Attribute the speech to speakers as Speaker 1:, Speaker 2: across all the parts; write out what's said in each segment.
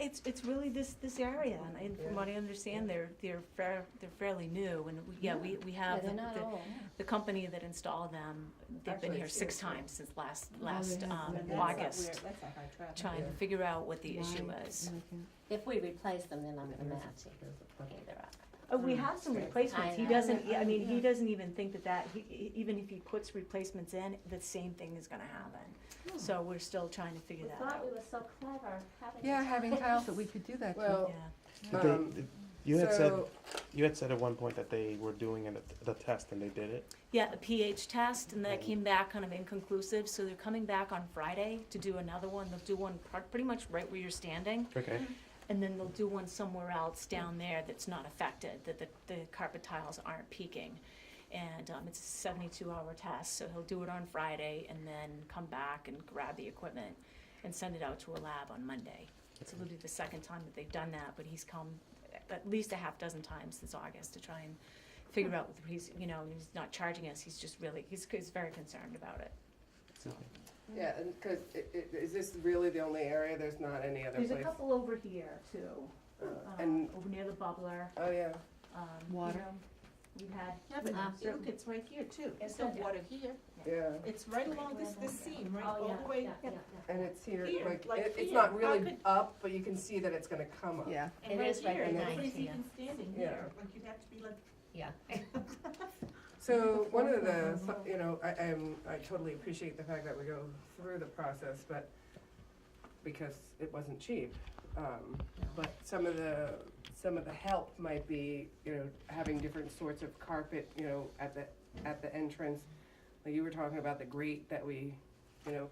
Speaker 1: it's, it's really this, this area, and- and from what I understand, they're, they're fair, they're fairly new, and we, yeah, we, we
Speaker 2: Yeah,
Speaker 1: have
Speaker 2: they're
Speaker 1: the-
Speaker 2: not
Speaker 1: the-
Speaker 2: old.
Speaker 1: the company that installed them, they've been
Speaker 3: Actually,
Speaker 1: here
Speaker 3: it's
Speaker 1: six
Speaker 3: here, right?
Speaker 1: times since last,
Speaker 2: Oh, they
Speaker 1: last, um,
Speaker 2: have, yeah.
Speaker 3: But that's
Speaker 2: in
Speaker 3: a
Speaker 1: August,
Speaker 3: weird- That's a high traffic.
Speaker 1: trying to
Speaker 4: Yeah.
Speaker 1: figure out what the issue
Speaker 2: Why-
Speaker 1: is.
Speaker 2: If we replace them, then I'm gonna
Speaker 4: There's a-
Speaker 2: match it,
Speaker 4: there's a couple.
Speaker 2: either up.
Speaker 1: Oh, we have some replacements, he doesn't,
Speaker 2: I know.
Speaker 1: I mean, he
Speaker 2: Yeah.
Speaker 1: doesn't even think that that, he- he, even if he puts replacements in, the same thing is gonna happen. So we're still trying to figure
Speaker 2: We
Speaker 1: that
Speaker 2: thought
Speaker 1: out,
Speaker 2: we were so clever having.
Speaker 5: Yeah, having tiles that
Speaker 2: this.
Speaker 5: we could do that to.
Speaker 1: yeah.
Speaker 3: Well,
Speaker 6: But they-
Speaker 3: um,
Speaker 6: th- you had said
Speaker 3: so-
Speaker 6: you had said at one point that they were doing an, the test and they did it.
Speaker 1: Yeah, a pH test, and that came back kind of inconclusive, so they're coming back on Friday to do another one, they'll do one pr- pretty much right where you're standing,
Speaker 6: Okay.
Speaker 1: and then they'll do one somewhere else down there that's not affected, that the, the carpet tiles aren't peaking. And, um, it's a seventy-two hour test, so he'll do it on Friday and then come back and grab the equipment and send it out to a lab on Monday. So it'll be the second time that they've done that, but he's come at least a half dozen times since August to try and figure out, if he's, you know, he's not charging us, he's just really, he's, he's very concerned about it, so.
Speaker 3: Yeah, and, cause i- i- is this really the only area? There's not any other place?
Speaker 1: There's a couple over here too,
Speaker 3: Uh,
Speaker 1: um,
Speaker 3: And,
Speaker 1: over near the bubbler,
Speaker 3: oh, yeah.
Speaker 1: um, you
Speaker 5: Water.
Speaker 1: know, we've had.
Speaker 7: Yeah, but
Speaker 2: Uh,
Speaker 7: look, it's right here too. It's
Speaker 1: Yeah.
Speaker 7: not water here.
Speaker 3: Yeah,
Speaker 7: It's right along this, this seam, right,
Speaker 2: Oh,
Speaker 7: all
Speaker 2: yeah,
Speaker 7: the way.
Speaker 2: yeah, yeah, yeah.
Speaker 3: and it's here,
Speaker 7: Here,
Speaker 3: like,
Speaker 7: like
Speaker 3: it, it's
Speaker 7: here.
Speaker 3: not
Speaker 7: How
Speaker 3: really
Speaker 7: could-
Speaker 3: up, but you can see that it's gonna come up.
Speaker 5: Yeah,
Speaker 7: And
Speaker 2: It
Speaker 7: right
Speaker 2: is right
Speaker 7: here, and
Speaker 2: behind
Speaker 7: nobody's
Speaker 2: it, yeah.
Speaker 7: even standing
Speaker 3: Yeah.
Speaker 7: here. Like, you'd have to be like,
Speaker 2: Yeah.
Speaker 3: So one of the, so- you know, I, I'm, I totally appreciate the fact that we go through the process, but because it wasn't cheap. Um, but some of the, some of the help might be, you know, having different sorts of carpet, you know, at the, at the entrance. Like you were talking about the grate that we, you know,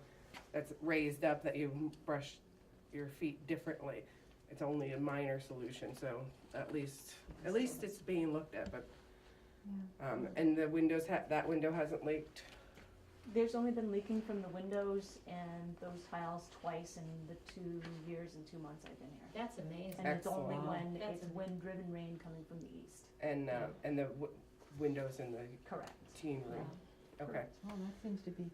Speaker 3: that's raised up, that you brush your feet differently. It's only a minor solution, so at least, at least it's being looked at, but um, and the windows ha- that window hasn't leaked.
Speaker 1: There's only been leaking from the windows and those tiles twice in the two years and two months I've been here.
Speaker 2: That's amazing.
Speaker 1: And it's only
Speaker 3: Excellent.
Speaker 1: when,
Speaker 2: That's
Speaker 1: it's
Speaker 2: amazing.
Speaker 1: wind driven rain coming from the east,
Speaker 3: And uh, and the w- windows in the
Speaker 1: correct.
Speaker 3: teen room. Okay.
Speaker 5: well, Oh, that seems to be,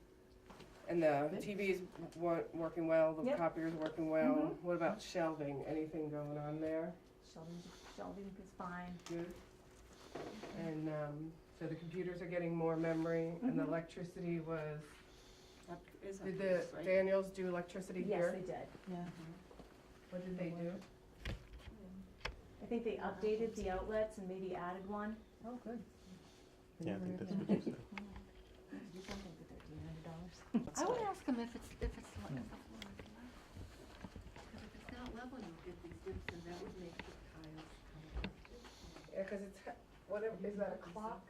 Speaker 3: And the TV is wa- working well. The
Speaker 1: Yep.
Speaker 3: copier's working well. What about shelving? Anything going on there?
Speaker 1: Shelving, shelving is fine.
Speaker 3: Good. And um, so the computers are getting more memory, and the electricity was.
Speaker 7: up is up
Speaker 3: Did
Speaker 7: here,
Speaker 3: the
Speaker 7: right?
Speaker 3: Daniels do electricity
Speaker 1: Yes,
Speaker 3: here?
Speaker 1: they did.
Speaker 5: yeah.
Speaker 8: Mm-hmm.
Speaker 3: What did they do?
Speaker 1: I think they updated the outlets and maybe added one.
Speaker 5: Oh, good.
Speaker 6: Yeah, I think that's what you said.
Speaker 1: You can think that thirteen hundred dollars.
Speaker 5: I would
Speaker 8: ask them if it's, if it's, le- if it's level. Because if it's not level, you get these dips, and that would make the tiles come up.
Speaker 3: Yeah, because it's ha- whatever. Is that a clock?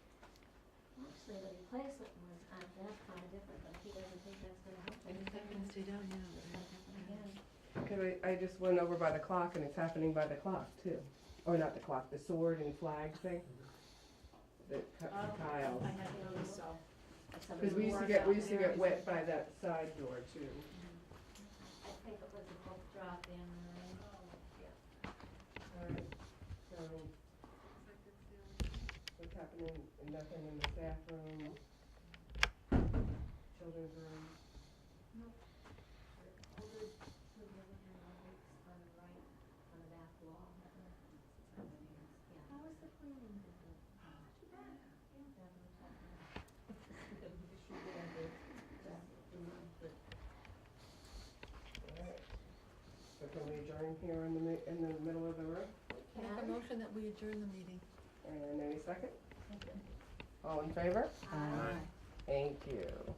Speaker 2: Actually, the replacement was on that kind of different, but he doesn't think that's gonna help.
Speaker 8: And if that
Speaker 2: anything.
Speaker 8: can stay down, yeah.
Speaker 2: It's gonna happen again.
Speaker 3: Because I, I just went over by the clock and it's happening by the clock too. Or not the clock, the sword and flag thing. The cu-
Speaker 7: Oh.
Speaker 3: tiles.
Speaker 7: I haven't noticed so.
Speaker 2: If somebody
Speaker 3: Because we used to
Speaker 2: wore
Speaker 3: get, we used
Speaker 2: something
Speaker 3: to
Speaker 2: there,
Speaker 3: get wet by that side door too.
Speaker 2: I think it was a book drop in,
Speaker 3: Oh,
Speaker 2: uh,
Speaker 3: Alright, so, what's happening, nothing in the staff room? Children's room?
Speaker 2: on the right, on the back wall. How was the cleaning?
Speaker 3: Alright. So can we adjourn here in the, mi- in the middle of the room?
Speaker 8: Make a motion that we adjourn the meeting.
Speaker 3: And any second? All in favor? Thank you.